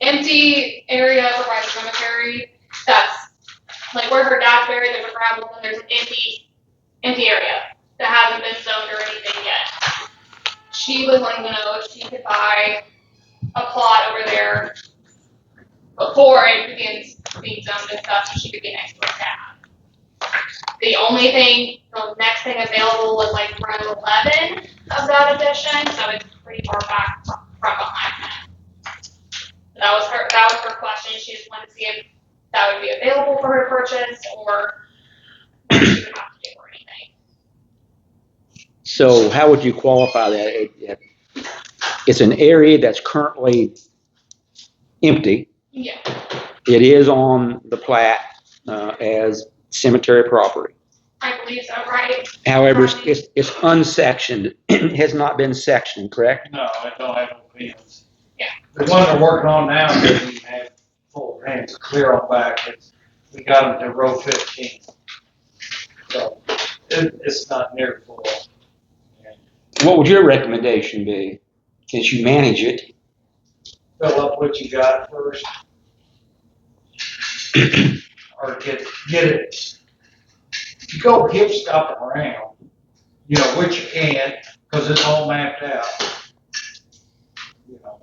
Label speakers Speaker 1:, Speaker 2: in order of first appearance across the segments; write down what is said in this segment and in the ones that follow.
Speaker 1: empty area over by the cemetery. That's like where her dad's buried. There's a gravel and there's an empty, empty area that hasn't been zoned or anything yet. She was wanting to know if she could buy a plot over there before it begins being zoned and stuff, so she could be next to her dad. The only thing, the next thing available was like row eleven of that addition, so it's pretty far back from from behind that. That was her, that was her question, she just wanted to see if that would be available for her to purchase, or what she would have to do or anything.
Speaker 2: So how would you qualify that? It- it- It's an area that's currently empty.
Speaker 1: Yeah,
Speaker 2: It is on the plat uh, as cemetery property.
Speaker 1: I believe so, right?
Speaker 2: However, it's- it's it's unsectioned, It has not been sectioned, correct?
Speaker 3: No, I don't have no pins.
Speaker 1: Yeah.
Speaker 3: The one they're working on now, doesn't even have full pins, clear on back, it's, we got them to row fifteen. So, it, it's not near full.
Speaker 2: What would your recommendation be, since you manage it?
Speaker 3: Fill up what you got first. Or get, get it, you go give stuff around, you know, which you can, cause it's all mapped out. You know,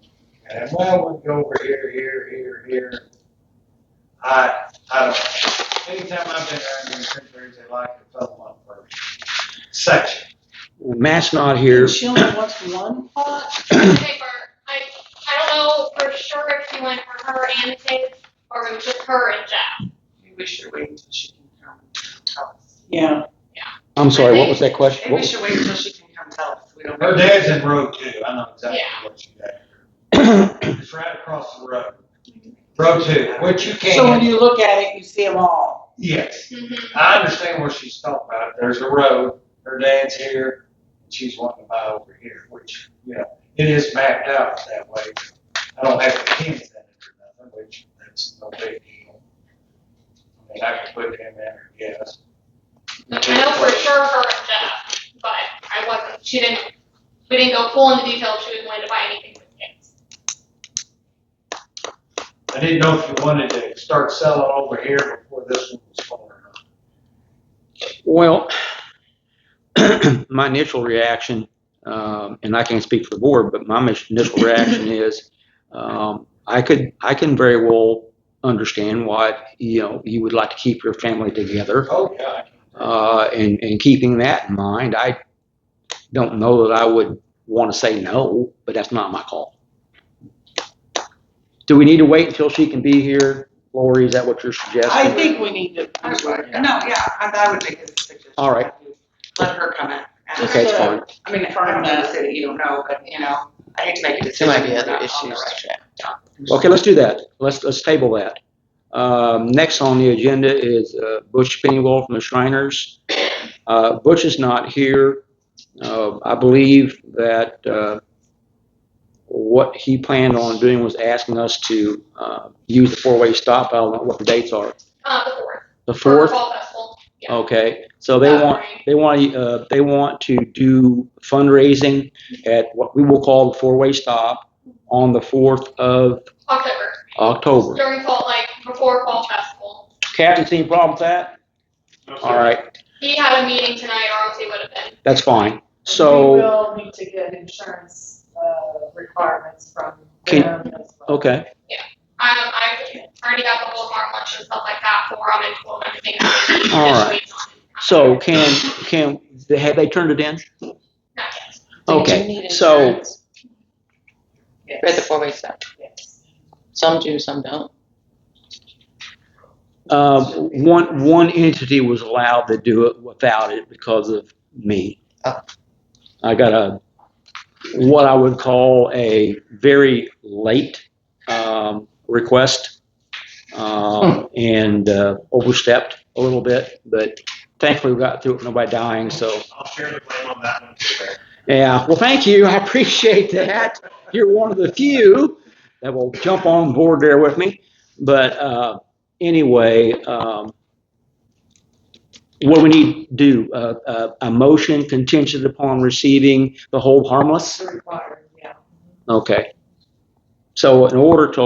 Speaker 3: And well, we go over here, here, here, here. I, I don't know. Anytime I've been around in cemeteries, they like to fill one first. Section.
Speaker 2: Matt's not here.
Speaker 4: She only wants one pot?
Speaker 1: Uh, Okay, for, I, I don't know for sure if she went for her and Sid, or it was just her and Jeff.
Speaker 5: Maybe we should wait until she can come tell us.
Speaker 4: Yeah.
Speaker 2: I'm sorry, what was that question?
Speaker 5: Maybe we
Speaker 2: What-
Speaker 5: should wait until she can come tell us. We don't.
Speaker 3: Her dad's in road two. I know exactly
Speaker 1: Yeah.
Speaker 3: what you got. It's right across the road. Row two, which you
Speaker 4: So when
Speaker 3: can,
Speaker 4: you look at it, you see them all.
Speaker 3: yes.
Speaker 1: Mhm.
Speaker 2: Mm-hmm.
Speaker 3: I understand what she's talking about. There's a road, her dad's here, and she's wanting to buy over here, which, you know, it is mapped out that way. I don't have the pins in it or nothing, which that's no big deal. I mean, I could put them in there, yes.
Speaker 1: I know for sure her and Jeff, but I wasn't, she didn't, we didn't go full into detail if she was wanting to buy anything with kids.
Speaker 3: I didn't know if you wanted to start selling over here before this one was sold or not.
Speaker 2: Well, my initial reaction, um, and I can't speak for the board, but my mis- initial reaction is, um, I could, I can very well understand why, you know, you would like to keep your family together.
Speaker 3: Oh, yeah.
Speaker 2: Uh, and, and keeping that in mind, I don't know that I would want to say no, but that's not my call. Do we need to wait until she can be here? Lori, is that what you're suggesting?
Speaker 4: I think we need to.
Speaker 5: I would, no, yeah, I, I would make a suggestion.
Speaker 2: All right.
Speaker 5: Let her come in. and-
Speaker 4: Just
Speaker 2: Okay, it's
Speaker 4: uh,
Speaker 2: fine.
Speaker 5: I mean, I don't know, the city, you don't know, but, you know, I hate to make a
Speaker 6: There
Speaker 5: decision.
Speaker 6: might be other
Speaker 5: on the
Speaker 6: issues
Speaker 5: right.
Speaker 6: to track.
Speaker 2: Okay, let's do that. Let's, let's table that. Um, next on the agenda is, uh, Butch Pennywell from the Shriners. Uh, Butch is not here. Uh, I believe that, uh, what he planned on doing was asking us to, uh, use the four-way stop. I don't know what the dates are.
Speaker 1: Uh, the fourth.
Speaker 2: The
Speaker 1: for
Speaker 2: fourth?
Speaker 1: Fall festival, yeah.
Speaker 2: Okay, so they
Speaker 1: That
Speaker 2: want,
Speaker 1: morning.
Speaker 2: they want, uh, they want to do fundraising at what we will call the four-way stop on the fourth of
Speaker 1: October,
Speaker 2: Oh, October.
Speaker 1: during fall, like, before fall festival.
Speaker 2: Captain's any problem with that? All right.
Speaker 1: He had a meeting tonight, or else he would have been.
Speaker 2: That's fine.
Speaker 4: We
Speaker 2: So,
Speaker 4: will need to get insurance, uh, requirements from
Speaker 2: Can-
Speaker 4: them as well.
Speaker 2: okay,
Speaker 1: Um, I already got the whole farm lunch and stuff like that for him and told him everything.
Speaker 2: All right. so can, can, have they turned it in?
Speaker 1: Not yet.
Speaker 2: Okay, so,
Speaker 6: Read the four-way stop.
Speaker 4: Yes.
Speaker 6: Some do, some don't.
Speaker 2: um, one, one entity was allowed to do it without it because of me.
Speaker 6: Oh.
Speaker 4: Uh.
Speaker 2: I got a, what I would call a very late, um, request.
Speaker 4: Hmm.
Speaker 2: Um, and, uh, overstepped a little bit, but thankfully we got through it, with nobody dying, so.
Speaker 7: I'll share the blame on that one too, Mayor.
Speaker 2: Yeah, well, thank you. I appreciate that. You're one of the few that will jump on board there with me. But uh, anyway, um, what we need to do, uh, uh, a motion contingent upon receiving the whole harmless?
Speaker 4: Required, yeah.
Speaker 2: Okay. So in order to